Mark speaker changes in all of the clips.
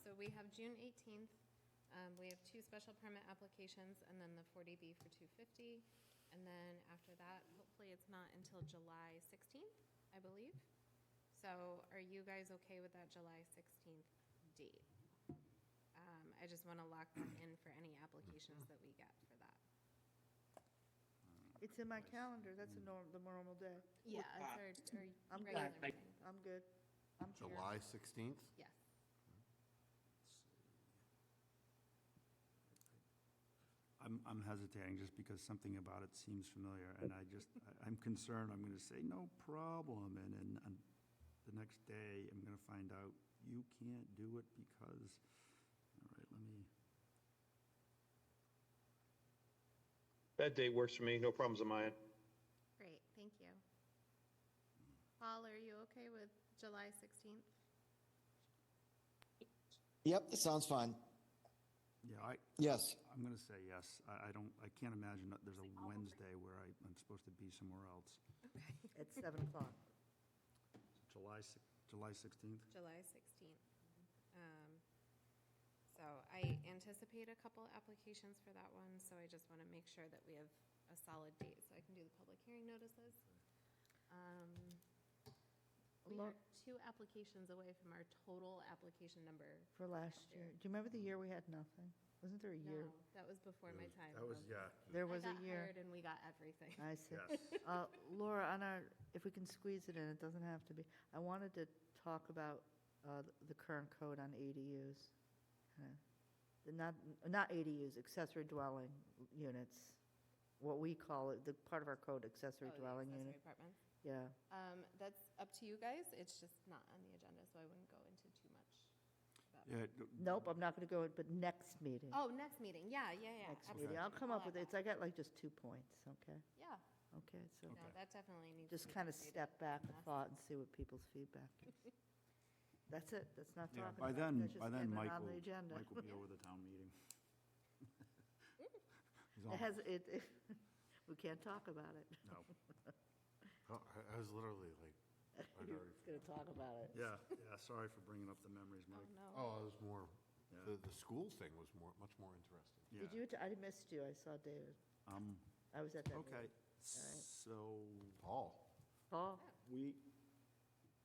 Speaker 1: so we have June 18th. um, We have two special permit applications, and then the 40B for 250. And then after that, hopefully it's not until July 16th, I believe. So are you guys okay with that July 16th date? Um, I just want to lock that in for any applications that we get for that.
Speaker 2: It's in my calendar, that's a norm, the normal day.
Speaker 1: Yeah. It's our, our
Speaker 2: I'm
Speaker 1: regular
Speaker 2: good.
Speaker 1: meeting.
Speaker 2: I'm good. I'm here.
Speaker 3: July 16th?
Speaker 1: Yes.
Speaker 4: I'm, I'm hesitating just because something about it seems familiar, and I just, I- I'm concerned, I'm gonna say, no problem, and then, and the next day, I'm gonna find out, you can't do it because, all right, let me,
Speaker 5: That date works for me, no problems on my end.
Speaker 1: Great, thank you. Paul, are you okay with July 16th?
Speaker 6: Yep, that sounds fine.
Speaker 4: yeah, I,
Speaker 6: Yes.
Speaker 4: I'm gonna say yes, I, I don't, I can't imagine that there's a Wednesday where I, I'm supposed to be somewhere else.
Speaker 2: At 7 o'clock.
Speaker 4: July, six- July 16th?
Speaker 1: July 16th. Um, So I anticipate a couple applications for that one, so I just want to make sure that we have a solid date so I can do the public hearing notices. Um, We
Speaker 2: Lo-
Speaker 1: are two applications away from our total application number.
Speaker 2: For last year. Do you remember the year we had nothing? Wasn't there a year?
Speaker 1: No, that was before my time.
Speaker 2: There was
Speaker 1: I
Speaker 2: a
Speaker 1: got hired
Speaker 2: year.
Speaker 1: and we got everything.
Speaker 2: I see.
Speaker 4: Yes.
Speaker 2: Uh, Laura, on our, if we can squeeze it in, it doesn't have to be. I wanted to talk about uh, the current code on ADUs. Kinda- the Not, not ADUs, accessory dwelling units, what we call it, the part of our code, accessory
Speaker 1: Oh, the
Speaker 2: dwelling
Speaker 1: accessory
Speaker 2: unit.
Speaker 1: apartments.
Speaker 2: Yeah.
Speaker 1: Um, That's up to you guys. It's just not on the agenda, so I wouldn't go into too much. about it.
Speaker 4: Yeah,
Speaker 2: Nope, I'm not going to go, in, but next meeting.
Speaker 1: Oh, next meeting. Yeah, yeah, yeah.
Speaker 2: Next meeting.
Speaker 1: absolutely.
Speaker 2: I'll come up with, it.
Speaker 1: add
Speaker 2: it's, I got like just two points, okay?
Speaker 1: that. Yeah.
Speaker 2: Okay, so
Speaker 1: No, that definitely needs. to
Speaker 2: just
Speaker 1: be
Speaker 2: kind of
Speaker 1: updated.
Speaker 2: step back and
Speaker 1: Yeah.
Speaker 2: thought and see what people's feedback is. That's it, that's not
Speaker 4: yeah,
Speaker 2: talking
Speaker 4: by
Speaker 2: about,
Speaker 4: then,
Speaker 2: that's just
Speaker 4: by then,
Speaker 2: getting it
Speaker 4: Mike
Speaker 2: on
Speaker 4: will,
Speaker 2: the agenda.
Speaker 4: Mike will be over the town meeting. He's
Speaker 2: It
Speaker 4: on-
Speaker 2: has, it, it- we can't talk about it.
Speaker 4: No.
Speaker 3: Oh, I I was literally like, I'd already,
Speaker 2: It's going to talk about it.
Speaker 4: Yeah, yeah, sorry for bringing up the memories,
Speaker 1: Oh,
Speaker 4: Mike.
Speaker 1: no.
Speaker 3: oh, I was more,
Speaker 4: Yeah.
Speaker 3: the, the school thing was more, much more interesting.
Speaker 4: Yeah.
Speaker 2: Um, Did you, att- I missed you, I saw David.
Speaker 4: Um,
Speaker 2: I was at that
Speaker 4: okay,
Speaker 2: meeting.
Speaker 4: so
Speaker 3: Paul?
Speaker 2: Paul,
Speaker 4: we,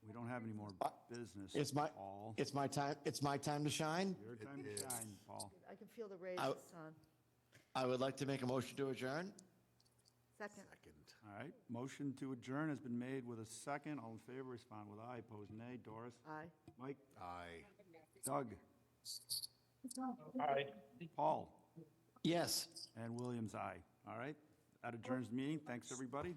Speaker 4: we don't have any more
Speaker 3: Uh,
Speaker 4: business.
Speaker 6: It's my,
Speaker 4: Paul,
Speaker 6: it's my time, it's my time to shine.
Speaker 4: your time to
Speaker 3: It is.
Speaker 4: shine, Paul.
Speaker 2: I can feel the
Speaker 6: I-
Speaker 2: rays, son.
Speaker 6: I would like to make a motion to adjourn.
Speaker 2: Second,
Speaker 3: Second.
Speaker 4: All right, motion to adjourn has been made with a second. All in favor, respond with aye, opposed nay. Doris?
Speaker 2: aye.
Speaker 4: Mike?
Speaker 3: Aye.
Speaker 4: Doug?
Speaker 5: Aye.
Speaker 4: Paul?
Speaker 6: Yes.
Speaker 4: And Williams, aye. All right, that adjourns the meeting. Thanks, everybody.